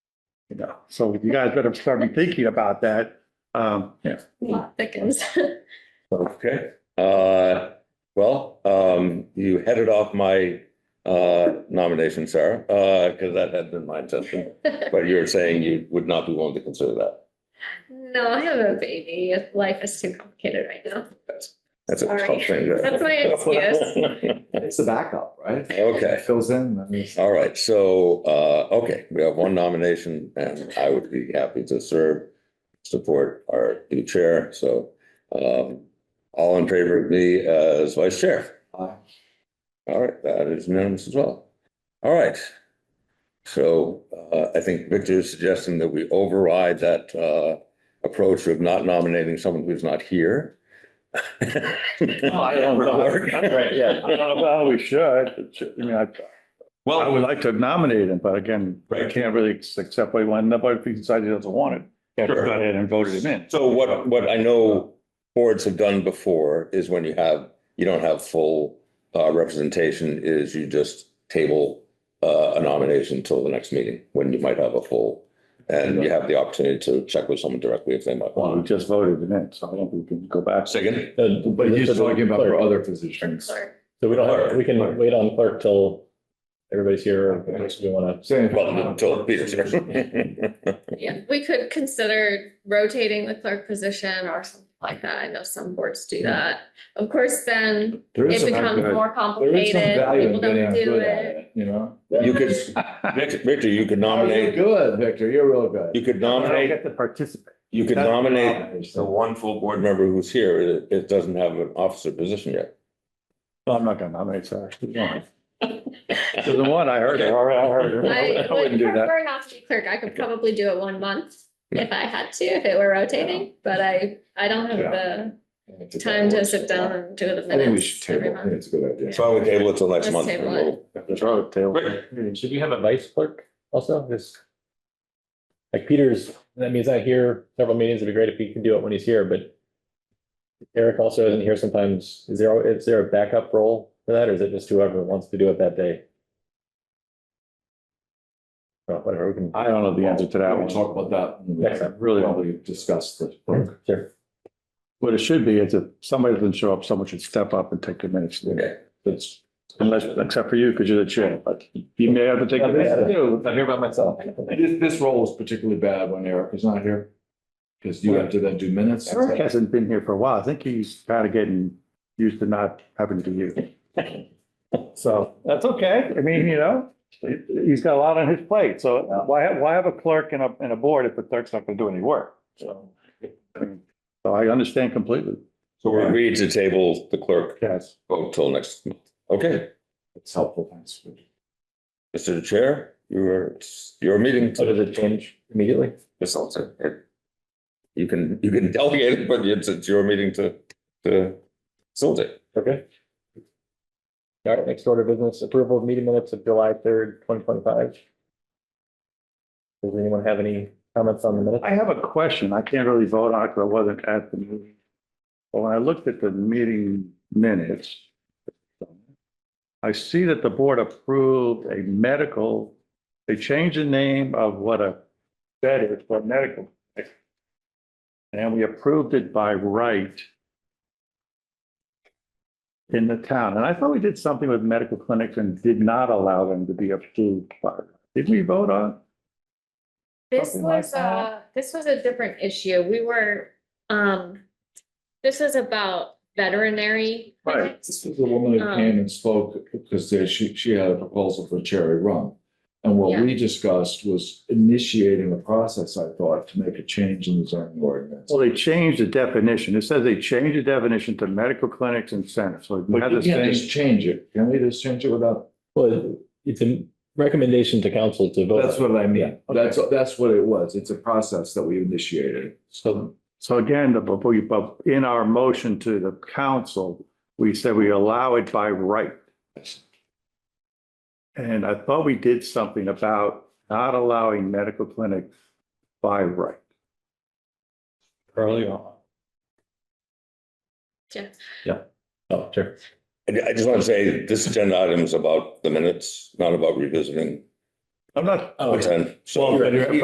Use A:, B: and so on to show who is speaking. A: You know, so you guys better start thinking about that. Um, yeah,
B: Plot thickens.
C: Okay, uh, well, um, you headed off my, uh, nomination, Sarah, uh, because that had been my intention. But you're saying you would not be willing to consider that.
B: No, I have a baby. Life is too complicated right now.
C: That's a tough
B: Sorry.
C: thing. to-
B: That's my excuse.
D: It's the backup, right?
C: Okay.
D: It Fills in, I mean,
C: All right, so, uh, okay, we have one nomination and I would be happy to serve, support our new chair, so, um, all in favor of me as vice chair?
D: Aye.
C: All right, that is unanimous as well. All right. So, uh, I think Victor is suggesting that we override that, uh, approach of not nominating someone who's not here. Oh,
A: I don't know.
C: Right, yeah.
A: well, we should. It's- I mean, I, I
C: Well,
A: would like to nominate him, but again, I
C: Right.
A: can't really accept what he wanted, but if he decided he doesn't want it, yeah, go
C: Sure.
A: ahead and voted him in.
C: So what, what I know boards have done before is when you have, you don't have full uh, representation, is you just table uh, a nomination until the next meeting, when you might have a full, and you have the opportunity to check with someone directly if they might
A: Well, we
C: want.
A: just voted him in, so I don't think we can go back.
C: Second,
D: but he's talking about for other positions.
B: Sorry.
E: So we don't
C: Clerk,
E: have, we
C: clerk.
E: can wait on clerk till everybody's here, or if we want to.
D: Same.
C: well, until Peter's here.
B: Yeah, we could consider rotating the clerk position or something like that. I know some boards do that. Of course, then
D: There is
B: it
D: some
B: becomes
D: value-
B: more
D: there is some
B: complicated.
D: value in
B: People don't
D: getting
B: do
D: good at
B: it.
D: it, you know?
C: You could, Vic- Victor, you could
D: Oh, You're
C: nominate,
D: good, Victor, you're real good.
C: you could
A: I don't
C: nominate,
A: get to participate.
C: you could
D: That's the
C: nominate the
D: nomination.
C: one full board member who's here, it, it doesn't have an officer position yet.
A: No, I'm not gonna nominate, sorry. She's the one, I heard her, all right, I heard her.
B: I
A: I
B: would
A: wouldn't do that.
B: prefer not to be clerk. I could probably do it one month if I had to, if it were rotating, but I, I don't have the time to sit down and do the
D: I think we
B: minutes
D: should
B: every
D: table, I think
B: month.
D: it's a good idea.
C: So I would table it till next
B: Let's
C: month.
B: table
C: and
B: it.
C: we'll-
A: That's all, table.
E: Should we have a vice clerk also? Just like Peter's, that means I hear several meetings. It'd be great if he could do it when he's here, but Eric also isn't here sometimes. Is there, is there a backup role for that, or is it just whoever wants to do it that day? Well, whatever, we can,
A: I don't know the answer to that
D: We'll
A: one.
D: talk about that.
E: Next time.
D: Really, we discuss the.
E: sure.
A: What it should be is if somebody doesn't show up, someone should step up and take the minutes.
C: Okay.
A: That's, unless, except for you, because you're the chair, but you may have to take the minutes.
E: I'm here by myself.
D: This, this role is particularly bad when Eric is not here. Because you have to then do minutes.
A: Eric hasn't been here for a while. I think he's kind of getting used to not having to be you. So that's okay. I mean, you know, he- he's got a lot on his plate. So why, why have a clerk and a, and a board if the clerk's not going to do any work? So I mean, so I understand completely.
C: So we're agreed to table the clerk
A: Yes.
C: vote till next month. Okay,
D: It's helpful, thanks.
C: Mr. Chair, your, it's your meeting.
E: So does it change immediately?
C: It's also- it- You can, you can delegate it, but it's, it's your meeting to, to facilitate.
E: Okay. All right, next order of business, approval of meeting minutes of July third, twenty twenty-five. Does anyone have any comments on the minutes?
A: I have a question. I can't really vote on it because I wasn't at the meeting. But when I looked at the meeting minutes, I see that the board approved a medical, they changed the name of what a bed is for medical. And we approved it by right in the town. And I thought we did something with medical clinics and did not allow them to be approved by. Did we vote on?
B: This
A: Something like
B: was a, this was a different issue. We were, um, this is about veterinary.
A: Right.
B: clinics.
D: This was a woman who
B: Um,
D: came and spoke because there- she, she had a proposal for Cherry Run. And what we discussed was initiating a process, I thought, to make a change in the zoning ordinance.
A: Well, they changed the definition. It says they changed the definition to medical clinics and centers. So we
D: But
A: have
D: you
A: this
D: can't
A: thing.
D: just change it. Can we just change it without?
E: Well, it's a recommendation to council to vote.
D: That's what I mean.
E: Yeah,
D: That's, that's what it was. It's a process that we initiated.
A: So, so again, the, but we- but in our motion to the council, we said we allow it by right. And I thought we did something about not allowing medical clinics by right.
E: Early on.
B: Yeah.
E: Yeah. Oh, sure.
C: I, I just want to say, this agenda item is about the minutes, not about revisiting.
A: I'm not,
E: Oh,
C: the ten. So-
A: Well, but-